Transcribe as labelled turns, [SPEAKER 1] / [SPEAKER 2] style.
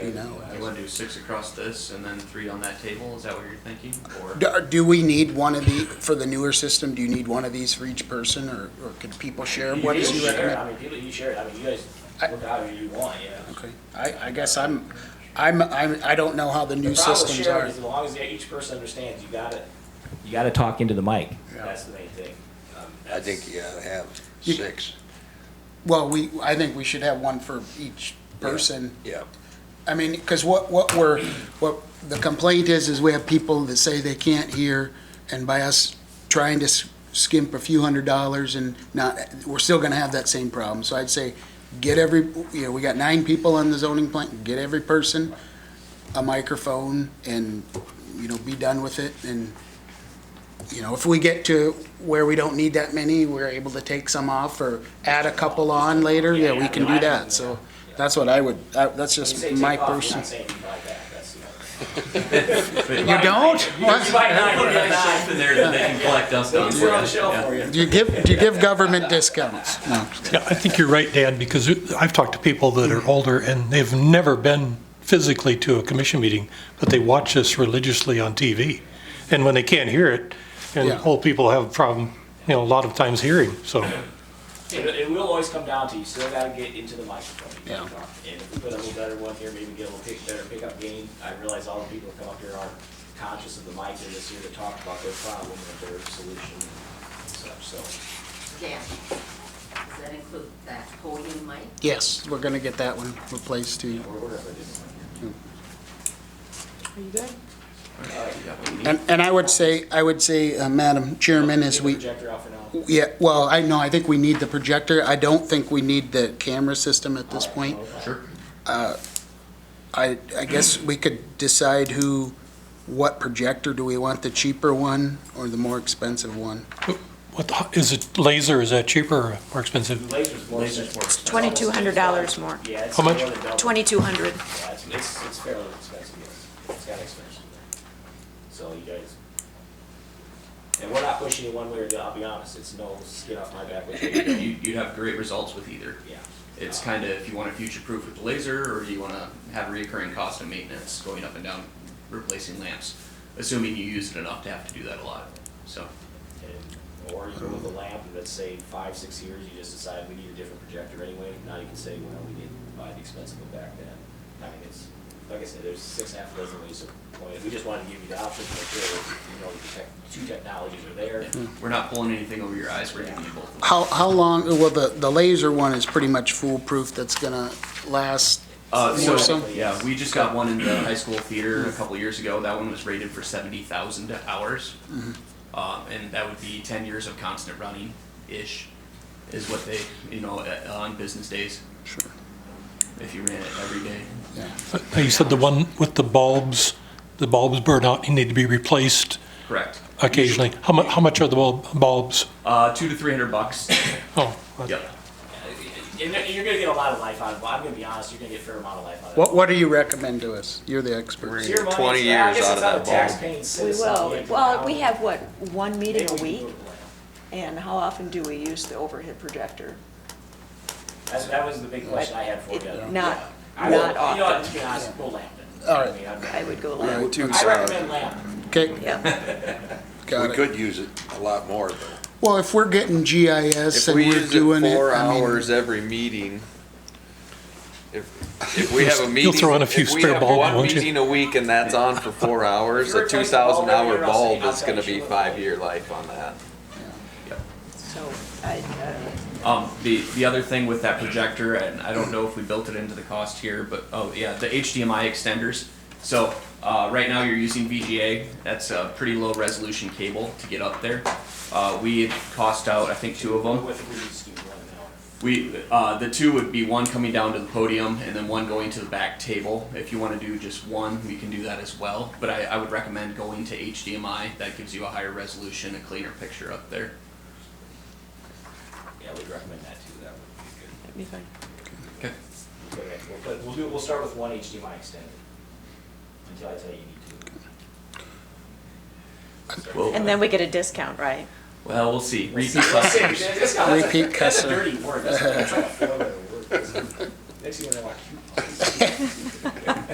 [SPEAKER 1] You want to do six across this and then three on that table? Is that what you're thinking? Or
[SPEAKER 2] Do, uh, do we need one of the, for the newer system, do you need one of these for each person, or, or could people share?
[SPEAKER 3] You
[SPEAKER 2] What
[SPEAKER 3] can
[SPEAKER 2] is you
[SPEAKER 3] share it.
[SPEAKER 2] recommend?
[SPEAKER 3] I mean, people, you share it, I mean, you guys
[SPEAKER 2] I-
[SPEAKER 3] work out who you want, you know.
[SPEAKER 2] Okay, I, I guess I'm, I'm, I'm, I don't know how the new
[SPEAKER 3] The problem with
[SPEAKER 2] systems
[SPEAKER 3] sharing
[SPEAKER 2] are.
[SPEAKER 3] is As long as each person understands, you gotta, you gotta talk into the mic. That's the main thing. Um,
[SPEAKER 4] I
[SPEAKER 3] that's-
[SPEAKER 4] think you ought to have
[SPEAKER 2] You-
[SPEAKER 4] six,
[SPEAKER 2] Well, we, I think we should have one for each person.
[SPEAKER 4] yeah.
[SPEAKER 2] I mean, because what, what we're, what the complaint is, is we have people that say they can't hear, and by us trying to s- skimp a few hundred dollars and not, we're still gonna have that same problem. So I'd say, get every, you know, we got nine people on the zoning plan, get every person a microphone and, you know, be done with it, and, you know, if we get to where we don't need that many, we're able to take some off or add a couple on later, yeah, we can do that, so that's what I would, I- that's
[SPEAKER 3] When you
[SPEAKER 2] just
[SPEAKER 3] say
[SPEAKER 2] my
[SPEAKER 3] take off, you're
[SPEAKER 2] personal.
[SPEAKER 3] not saying you like that, that's the only thing.
[SPEAKER 2] You don't?
[SPEAKER 3] You might not put it on the
[SPEAKER 1] stuff in there that they can collect dust on.
[SPEAKER 3] shelf. Put it on the
[SPEAKER 1] Yeah.
[SPEAKER 3] shelf for you.
[SPEAKER 2] Do you give, do you give government discounts? No.
[SPEAKER 5] Yeah, I think you're right, Dan, because I've talked to people that are older and they've never been physically to a commission meeting, but they watch us religiously on TV. And when they can't hear it, and
[SPEAKER 2] Yeah.
[SPEAKER 5] old people have a problem, you know, a lot of times hearing, so.
[SPEAKER 3] It, it will always come down to, you still gotta get into the microphone.
[SPEAKER 2] Yeah.
[SPEAKER 3] And if we put a little better one here, maybe get a little pick, better pickup gain, I realize all the people that come up here aren't conscious of the mic, they're just here to talk about their problem and their solution and such, so.
[SPEAKER 6] Dan, does that include that podium mic?
[SPEAKER 2] Yes, we're gonna get that one replaced too.
[SPEAKER 3] We're, we're up against it.
[SPEAKER 2] And, and I would say, I would say, uh, Madam Chairman, as
[SPEAKER 3] Get the
[SPEAKER 2] we,
[SPEAKER 3] Projector out for now.
[SPEAKER 2] yeah, well, I know, I think we need the projector. I don't think we need the camera system at this point. Uh,
[SPEAKER 1] Sure.
[SPEAKER 2] I, I guess we could decide who, what projector, do we want the cheaper one or the more expensive one?
[SPEAKER 5] What, the- is it laser, is that cheaper or more expensive?
[SPEAKER 3] Laser's more.
[SPEAKER 1] Laser's more
[SPEAKER 3] expensive.
[SPEAKER 7] Twenty-two hundred dollars more,
[SPEAKER 3] Yeah, it's
[SPEAKER 5] How
[SPEAKER 3] more
[SPEAKER 5] much?
[SPEAKER 3] than double.
[SPEAKER 7] twenty-two hundred.
[SPEAKER 3] Yeah, it's, it's, it's fairly expensive, yes. It's got expensive. So you guys. And we're not pushing you one way or the other, I'll be honest, it's no skin off my back with you.
[SPEAKER 1] You, you'd have great results with either.
[SPEAKER 3] Yeah.
[SPEAKER 1] It's kind of if you want to future proof with the laser or you want to have recurring cost of maintenance going up and down, replacing lamps, assuming you use it enough to have to do that a lot. So,
[SPEAKER 3] And- Or you go with a lamp and let's say five, six years, you just decide we need a different projector anyway. Now you can say, well, we need to buy the expensive one back then. I mean, it's, like I said, there's six, half a dozen ways to play it. We just wanted to give you the option to make sure, you know, the tech, two technologies are there.
[SPEAKER 1] yeah. we're not pulling anything over your eyes. We're giving you both. of them.
[SPEAKER 2] How, how long, well, the, the laser one is pretty much foolproof. That's gonna last
[SPEAKER 1] Uh,
[SPEAKER 2] more
[SPEAKER 1] so,
[SPEAKER 2] so.
[SPEAKER 1] yeah, we just got one in the high school theater a couple years ago. That one was rated for 70,000 hours. Um, and that would be 10 years of constant running ish, is what they, you know, uh, on business days,
[SPEAKER 2] Sure,
[SPEAKER 1] if you ran it every day.
[SPEAKER 2] yeah.
[SPEAKER 5] Now, uh, You said the one with the bulbs, the bulbs burn out, you need to be replaced
[SPEAKER 1] Correct.
[SPEAKER 5] occasionally. How mu, how much are the bulb, bulbs?
[SPEAKER 1] Uh, two to 300 bucks.
[SPEAKER 5] Oh,
[SPEAKER 1] yep.
[SPEAKER 3] And you're- you're gonna get a lot of life out of it. Well, I'm gonna be honest, you're gonna get a fair amount of life out of it.
[SPEAKER 2] What, what do you recommend to us? You're the expert.
[SPEAKER 3] It's your money,
[SPEAKER 4] 20
[SPEAKER 3] it's-
[SPEAKER 4] years
[SPEAKER 3] I guess it's
[SPEAKER 4] out of
[SPEAKER 3] not
[SPEAKER 4] that
[SPEAKER 3] a
[SPEAKER 4] bulb.
[SPEAKER 3] taxpaying
[SPEAKER 7] We
[SPEAKER 3] citizen.
[SPEAKER 7] will, well, we have, what, one meeting
[SPEAKER 3] Maybe
[SPEAKER 7] a
[SPEAKER 3] we can
[SPEAKER 7] week?
[SPEAKER 3] go to the lab.
[SPEAKER 7] And how often do we use the overhead projector?
[SPEAKER 3] That's, that was the big question I had for you.
[SPEAKER 7] It-
[SPEAKER 3] Yeah.
[SPEAKER 7] Not,
[SPEAKER 3] I will-
[SPEAKER 7] not
[SPEAKER 3] You know, what, to
[SPEAKER 7] often.
[SPEAKER 3] be honest, we'll lamp it.
[SPEAKER 2] All right.
[SPEAKER 3] I mean, I'd-
[SPEAKER 7] I would go
[SPEAKER 2] All
[SPEAKER 7] low.
[SPEAKER 2] right,
[SPEAKER 3] I recommend lamp.
[SPEAKER 2] Okay,
[SPEAKER 7] Yeah,
[SPEAKER 4] We
[SPEAKER 2] got it.
[SPEAKER 4] could use it a lot more though.
[SPEAKER 2] Well, if we're getting GIS
[SPEAKER 8] If
[SPEAKER 2] and
[SPEAKER 8] we
[SPEAKER 2] we're
[SPEAKER 8] use it
[SPEAKER 2] doing it,
[SPEAKER 8] four
[SPEAKER 2] I mean,
[SPEAKER 8] hours every meeting, if, if we have a
[SPEAKER 5] You'll
[SPEAKER 8] meeting.
[SPEAKER 5] throw in a few
[SPEAKER 8] if we
[SPEAKER 5] spare
[SPEAKER 8] have
[SPEAKER 5] bulbs,
[SPEAKER 8] One
[SPEAKER 5] won't you?
[SPEAKER 8] meeting a week and that's on for four hours,
[SPEAKER 3] If you
[SPEAKER 8] a two
[SPEAKER 3] replace the bulb
[SPEAKER 8] thousand hour
[SPEAKER 3] every hour, I'll say-
[SPEAKER 8] bulb
[SPEAKER 3] I'll
[SPEAKER 8] is
[SPEAKER 3] tell you
[SPEAKER 8] gonna
[SPEAKER 3] she
[SPEAKER 8] be
[SPEAKER 3] will.
[SPEAKER 8] five year life on that.
[SPEAKER 7] so I, uh,
[SPEAKER 1] Um, the, the other thing with that projector, and I don't know if we built it into the cost here, but, oh, yeah, the HDMI extenders. So, uh, right now you're using VGA, that's a pretty low resolution cable to get up there. Uh, we had cost out, I think, two of
[SPEAKER 3] I
[SPEAKER 1] them.
[SPEAKER 3] would think we just do one an hour.
[SPEAKER 1] We, uh, the two would be one coming down to the podium and then one going to the back table. If you want to do just one, we can do that as well. But I, I would recommend going to HDMI. That gives you a higher resolution, a cleaner picture up there.
[SPEAKER 3] Yeah, we'd recommend that too, that would be good.
[SPEAKER 7] that'd be fine.
[SPEAKER 1] Okay.
[SPEAKER 3] We'll put it- We'll put, we'll do, we'll start with one HDMI extender. Until I tell you you need to.
[SPEAKER 7] And then we get a discount, right?
[SPEAKER 1] Well, we'll see. Repeat
[SPEAKER 3] That's a-
[SPEAKER 1] customers.
[SPEAKER 3] that's a-
[SPEAKER 2] Repeat
[SPEAKER 3] That's a
[SPEAKER 2] customer.
[SPEAKER 3] dirty word, that's a, that's a, that's a word. Next thing you know, I